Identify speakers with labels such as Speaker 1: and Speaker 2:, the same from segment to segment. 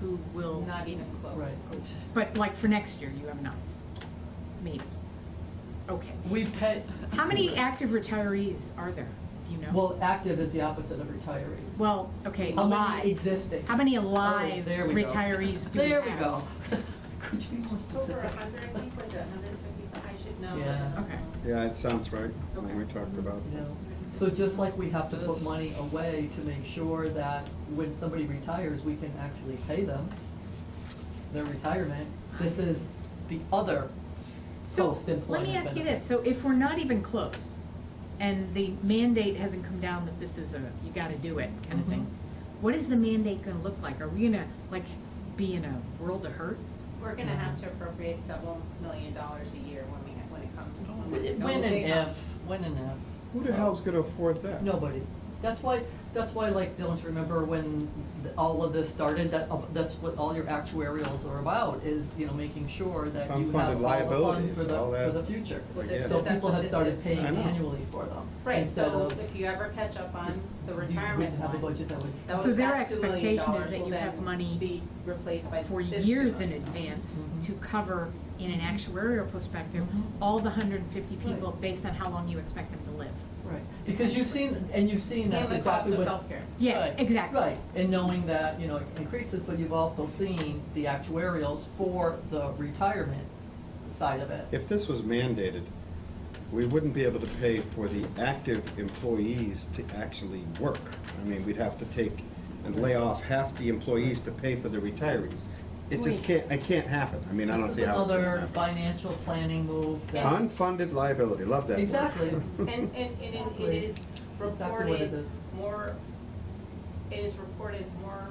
Speaker 1: who will.
Speaker 2: Not even close.
Speaker 1: Right.
Speaker 3: But like for next year, you have none, maybe. Okay.
Speaker 1: We pay.
Speaker 3: How many active retirees are there? Do you know?
Speaker 1: Well, active is the opposite of retirees.
Speaker 3: Well, okay,
Speaker 1: How
Speaker 3: alive.
Speaker 1: many existing?
Speaker 3: How many
Speaker 1: Oh,
Speaker 3: alive
Speaker 1: there we go.
Speaker 3: retirees do we
Speaker 1: There
Speaker 3: have?
Speaker 1: we go. Could you be more
Speaker 2: Over a
Speaker 1: specific?
Speaker 2: hundred, I think, was it hundred and fifty-five, I should know.
Speaker 1: Yeah.
Speaker 3: Okay.
Speaker 4: Yeah, it sounds right, when we
Speaker 2: Okay.
Speaker 4: talked about.
Speaker 1: No. So just like we have to put money away to make sure that when somebody retires, we can actually pay them their retirement, this is the other
Speaker 3: So,
Speaker 1: post-employment
Speaker 3: let me ask you
Speaker 1: benefit.
Speaker 3: this, so if we're not even close, and the mandate hasn't come down that this is a, you gotta do it kind of
Speaker 1: Mhm.
Speaker 3: thing, what is the mandate gonna look like? Are we gonna, like, be in a world of hurt?
Speaker 2: We're gonna
Speaker 1: Mm-hmm.
Speaker 2: have to appropriate several million dollars a year when we, when it comes.
Speaker 1: When when
Speaker 2: it
Speaker 1: and
Speaker 2: comes.
Speaker 1: if, when and if.
Speaker 4: Who the
Speaker 1: So-
Speaker 4: hell's gonna afford that?
Speaker 1: Nobody. That's why, that's why, like, don't you remember when th- all of this started, that, uh, that's what all your actuarials are about, is, you know, making sure that
Speaker 4: It's
Speaker 1: you have
Speaker 4: unfunded
Speaker 1: all the funds
Speaker 4: liabilities,
Speaker 1: for the,
Speaker 4: all
Speaker 1: for
Speaker 4: that.
Speaker 1: the future.
Speaker 2: Well,
Speaker 4: this-
Speaker 1: So
Speaker 2: that's
Speaker 1: people
Speaker 2: what
Speaker 1: have
Speaker 2: this
Speaker 1: started
Speaker 2: is.
Speaker 1: paying
Speaker 4: I know.
Speaker 1: annually for them.
Speaker 2: Right,
Speaker 1: instead
Speaker 2: so
Speaker 1: of-
Speaker 2: if you ever catch up on the
Speaker 1: You
Speaker 2: retirement
Speaker 1: wouldn't
Speaker 2: one.
Speaker 1: have a budget that would-
Speaker 2: those-
Speaker 3: So their
Speaker 2: that $2 million
Speaker 3: expectation is that
Speaker 2: will
Speaker 3: you
Speaker 2: then
Speaker 3: have money
Speaker 2: Be replaced by this.
Speaker 3: for
Speaker 2: $2
Speaker 3: years in
Speaker 2: million.
Speaker 3: advance
Speaker 1: Mhm.
Speaker 3: to cover, in an actuarial perspective,
Speaker 1: Mhm.
Speaker 3: all the hundred and fifty people
Speaker 1: Right.
Speaker 3: based on how long you expect them to live.
Speaker 1: Right, because you've seen, and you've seen that's exactly
Speaker 2: And
Speaker 1: what.
Speaker 2: the cost of healthcare.
Speaker 3: Yeah,
Speaker 1: Right,
Speaker 3: exactly.
Speaker 1: Right, and knowing that, you know, it increases, but you've also seen the actuarials for the retirement side of it.
Speaker 4: If this was mandated, we wouldn't be able to pay for the active employees to actually work. I mean, we'd have to take and lay off half the employees to pay for the retirees. It just can't, it can't happen. I mean, I don't see how it's
Speaker 1: This is
Speaker 4: gonna
Speaker 1: another
Speaker 4: happen.
Speaker 1: financial planning move that.
Speaker 4: Unfunded liability, love that word.
Speaker 1: Exactly.
Speaker 2: And, and, and it- it
Speaker 1: Exactly.
Speaker 2: is
Speaker 1: That's exactly what it
Speaker 2: reported
Speaker 1: is.
Speaker 2: more, it is reported more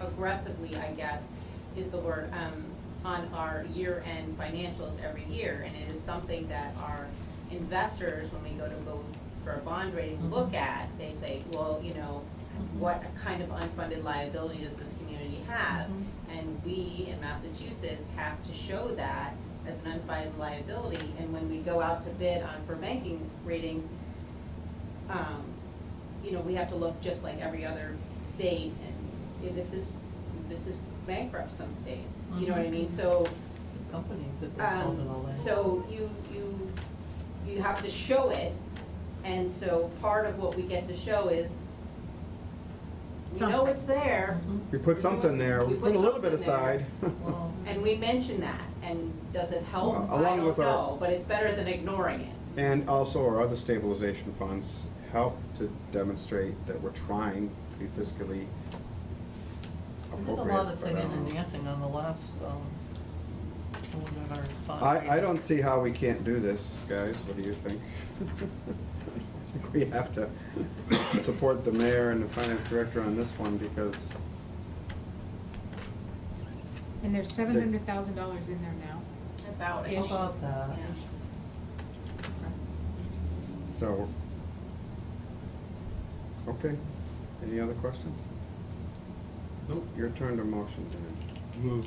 Speaker 2: aggressively, I guess, is the word, um, on our year-end financials every year. And it is something that our investors, when we go to go for a bond rating, look at, they say, well, you know, what kind of unfunded liability does this community have? And we in Massachusetts have to show that as an unfunded liability. And when we go out to bid on for banking ratings, um, you know, we have to look just like every other state, and yeah, this is, this is bankrupt some states, you know what I mean? So,
Speaker 1: Some Companies that they're called and Mm-hmm. all
Speaker 2: um,
Speaker 1: that.
Speaker 2: so you, you, you have to show it, and so part of what we get to show is, we know it's there,
Speaker 1: Mhm.
Speaker 4: We put something there, we
Speaker 2: We
Speaker 4: put
Speaker 2: put
Speaker 4: a little bit
Speaker 2: something there.
Speaker 4: aside.
Speaker 1: Well,
Speaker 2: and we mention that, and does it help?
Speaker 4: Well,
Speaker 2: I
Speaker 4: along
Speaker 2: don't
Speaker 4: with our-
Speaker 2: know, but it's better than ignoring it.
Speaker 4: And also our other stabilization funds help to demonstrate that we're trying to be fiscally
Speaker 1: we did
Speaker 4: appropriate.
Speaker 1: a lot
Speaker 4: but I
Speaker 1: of singing
Speaker 4: don't
Speaker 1: and
Speaker 4: know.
Speaker 1: dancing on the last, um, one of our. fun-
Speaker 4: I, I don't see how we can't do this, guys, what do you think? I think we have to support the mayor and the finance director on this one, because
Speaker 3: And there's seven hundred thousand dollars in there now.
Speaker 2: About it.
Speaker 1: How About that.
Speaker 2: Yeah.
Speaker 4: So, okay, any other questions? Nope. Your turn to motion, Dan.
Speaker 5: Move,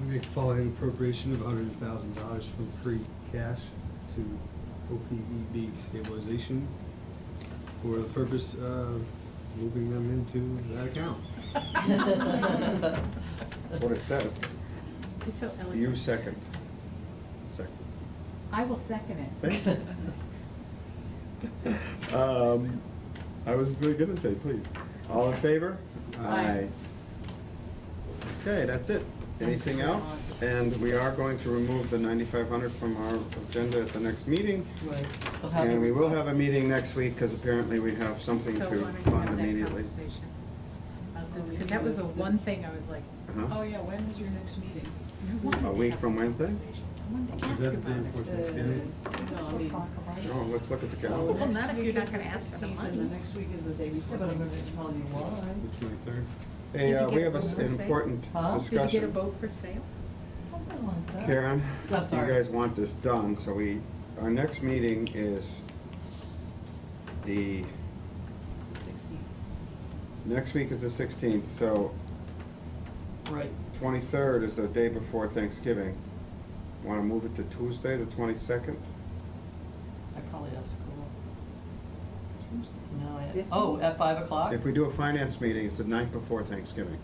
Speaker 5: we make following appropriation of hundred thousand dollars from free cash to OPEB stabilization for the purpose of moving them into that account.
Speaker 4: What it says,
Speaker 3: You're so eloquent.
Speaker 4: you second. Second.
Speaker 3: I will second it.
Speaker 4: Thank you. Um, I was really gonna say, please. All in favor?
Speaker 1: Aye.
Speaker 4: Okay, that's it. Anything else? And we are going to remove the ninety-five hundred from our agenda at the next meeting.
Speaker 1: Right. We'll have
Speaker 4: And
Speaker 1: the
Speaker 4: we will have a
Speaker 1: request.
Speaker 4: meeting next week, because apparently we have something
Speaker 3: So
Speaker 4: to
Speaker 3: why don't you
Speaker 4: fund
Speaker 3: have that
Speaker 4: immediately.
Speaker 3: conversation? Because that was the one thing I was like,
Speaker 4: Uh-huh.
Speaker 6: Oh, yeah, when is your next meeting?
Speaker 3: I wanted to
Speaker 4: A week
Speaker 3: have
Speaker 4: from
Speaker 3: that
Speaker 4: Wednesday?
Speaker 3: conversation. I wanted to
Speaker 5: Is
Speaker 3: ask
Speaker 5: that the
Speaker 3: about
Speaker 5: day
Speaker 3: it.
Speaker 5: before
Speaker 6: Uh,
Speaker 5: Thanksgiving?
Speaker 6: No, I mean.
Speaker 4: Oh, let's look at the
Speaker 6: so
Speaker 4: calendar.
Speaker 3: Well, not if
Speaker 6: next
Speaker 3: you're
Speaker 6: week
Speaker 3: not
Speaker 6: is
Speaker 3: gonna
Speaker 6: the
Speaker 3: ask for the
Speaker 6: 16th,
Speaker 3: money.
Speaker 6: And the next week is the day
Speaker 1: Yeah,
Speaker 6: before
Speaker 1: But I'm gonna
Speaker 6: Thanksgiving.
Speaker 1: tell you why.
Speaker 5: The twenty-third?
Speaker 4: Hey,
Speaker 3: Did you
Speaker 4: uh,
Speaker 3: get
Speaker 4: we
Speaker 3: a
Speaker 4: have an
Speaker 3: vote for sale?
Speaker 4: important
Speaker 1: Huh? Did you
Speaker 4: discussion.
Speaker 3: Did you get a vote for sale?
Speaker 1: Something like that.
Speaker 4: Karen,
Speaker 1: I'm
Speaker 4: you
Speaker 1: sorry.
Speaker 4: guys want this done, so we, our next meeting is the,
Speaker 6: Sixteen.
Speaker 4: next week is the sixteenth, so
Speaker 1: Right.
Speaker 4: twenty-third is the day before Thanksgiving. Want to move it to Tuesday, the twenty-second?
Speaker 1: I probably have school. No, I, oh, at five o'clock?
Speaker 4: If we do a finance meeting, it's the night before Thanksgiving.